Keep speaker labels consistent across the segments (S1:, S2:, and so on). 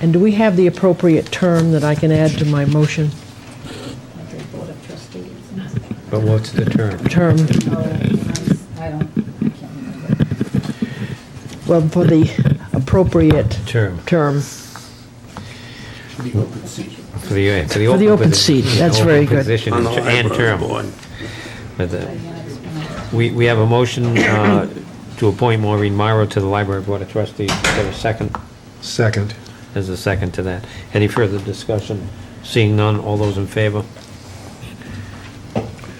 S1: And do we have the appropriate term that I can add to my motion?
S2: Board of Trustees.
S3: But what's the term?
S1: Term,
S2: Oh, I I don't, I can't remember.
S1: well, for the appropriate
S3: Term.
S1: term
S3: For the, for the
S1: For
S3: open.
S1: the open
S3: posi-
S1: seat, that's
S3: open
S1: very good.
S3: Position
S4: On the
S3: and
S4: library
S3: term.
S4: board.
S3: But the-
S2: Diana explained.
S3: We, we have a motion uh, to appoint Maureen Morrow to the Library Board of Trustees. Is there a second?
S5: Second.
S3: There's a second to that. Any further discussion? Seeing none, all those in favor?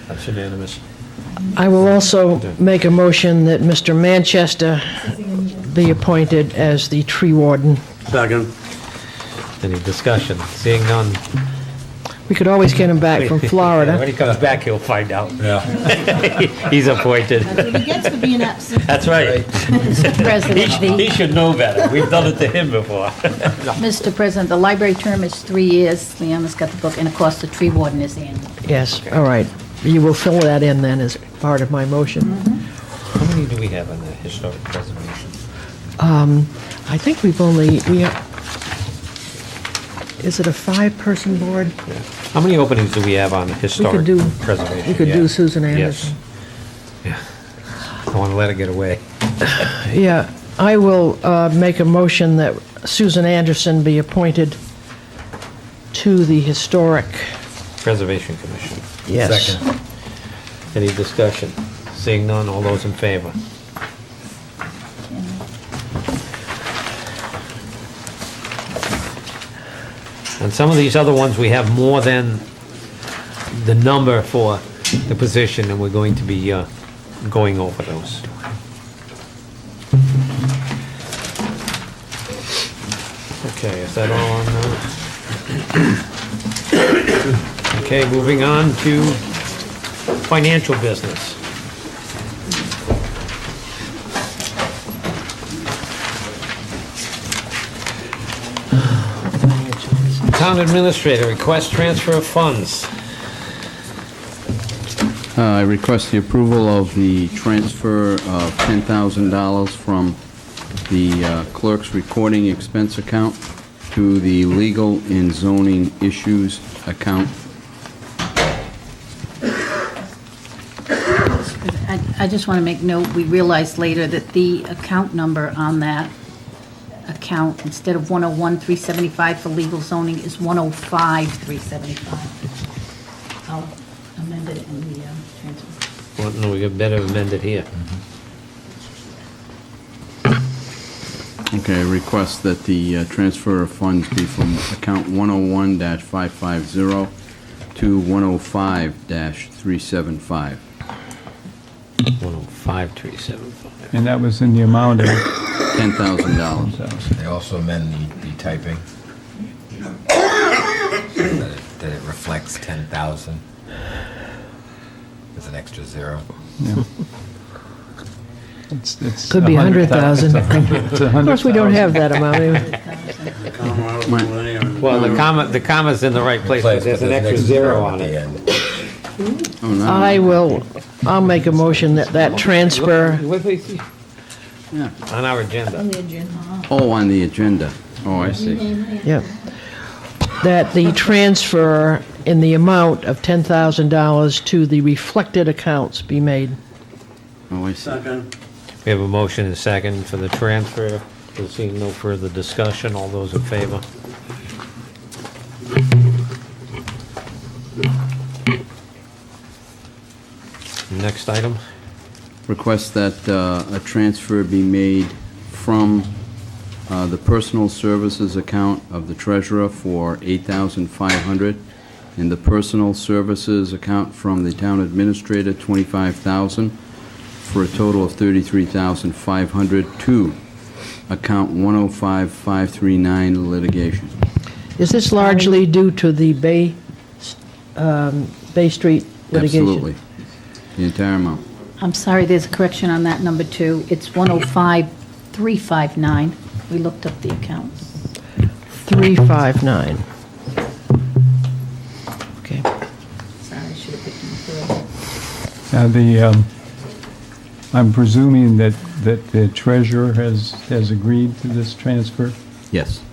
S3: That's unanimous.
S1: I will also make a motion that Mr. Manchester be appointed as the tree warden.
S4: Second.
S3: Any discussion? Seeing none.
S1: We could always get him back from
S3: When
S1: Florida.
S3: he comes back, he'll find out.
S5: Yeah.
S3: He's appointed.
S2: If he gets to be an absent
S3: That's right. He
S2: president, the-
S3: he should know better. We've done it to him before.
S2: Mr. President, the library term is three years. Leanna's got the book, and of course, the tree warden is annual.
S1: Yes, all right. You will fill that in then as part of my motion.
S3: How many do we have on the historic preservation?
S1: I think we've only, we, is it a five-person board?
S3: How many openings do we have on historic
S1: do-
S3: preservation?
S1: we could
S3: Yeah.
S1: do Susan
S3: Yes.
S1: Anderson.
S3: Yeah. I want to let her get away.
S1: Yeah, I will uh, make a motion that Susan Anderson be appointed to the historic,
S3: Preservation Commission.
S1: yes.
S5: Second.
S3: Any discussion? Seeing none, all those in favor? And some of these other ones, we have more than the number for the position, and we're going to be uh, going over those. Okay, is that all on those? Okay, moving on to financial business. Town administrator request transfer of funds.
S6: Uh, I request the approval of the transfer of $10,000 from the uh, clerk's recording expense account to the legal and zoning issues account.
S2: I I just want to make note, we realized later that the account number on that account, instead of 101,375 for legal zoning, is 105,375. I'll amend it in the um, transfer.
S3: Well, no, we got better amend it here.
S6: Okay, I request that the uh, transfer of funds be from account 101-550 to 105-375.
S3: 105,375.
S7: And that was in the amount of,
S6: $10,000.
S7: so,
S5: They also amend the- the typing. That it- that it reflects 10,000. There's an extra zero.
S7: yeah. It's- it's
S1: Could be
S7: 100,000.
S1: 100,000.
S7: It's a hundred- it's a
S1: Of course, we don't
S7: 100,000.
S1: have that amount.
S4: Come out of the way and-
S3: Well, the comma, the comma's in the right place, but there's an extra zero on
S5: at the
S3: it.
S5: end.
S6: Oh, no.
S1: I will, I'll make a motion that that transfer,
S3: What do you see?
S6: Yeah.
S3: On our agenda.
S6: Oh, on the agenda. Oh, I see.
S1: yeah, that the transfer in the amount of $10,000 to the reflected accounts be made.
S6: Oh, I see.
S4: Second.
S3: We have a motion and second for the transfer. We're seeing no further discussion. All those in favor? Next item?
S6: request that uh, a transfer be made from uh, the personal services account of the treasurer for $8,500, and the personal services account from the town administrator, $25,000, for a total of $33,500 to account 105539 litigation.
S1: Is this largely due to the Bay, um, Bay Street litigation?
S6: Absolutely. The entire amount.
S2: I'm sorry, there's a correction on that number two. It's 105,359. We looked up the accounts.
S1: 359. Okay.
S2: Sorry, I should have picked them up.
S7: Now, the, um, I'm presuming that, that the treasurer has, has agreed to this transfer?
S6: Yes.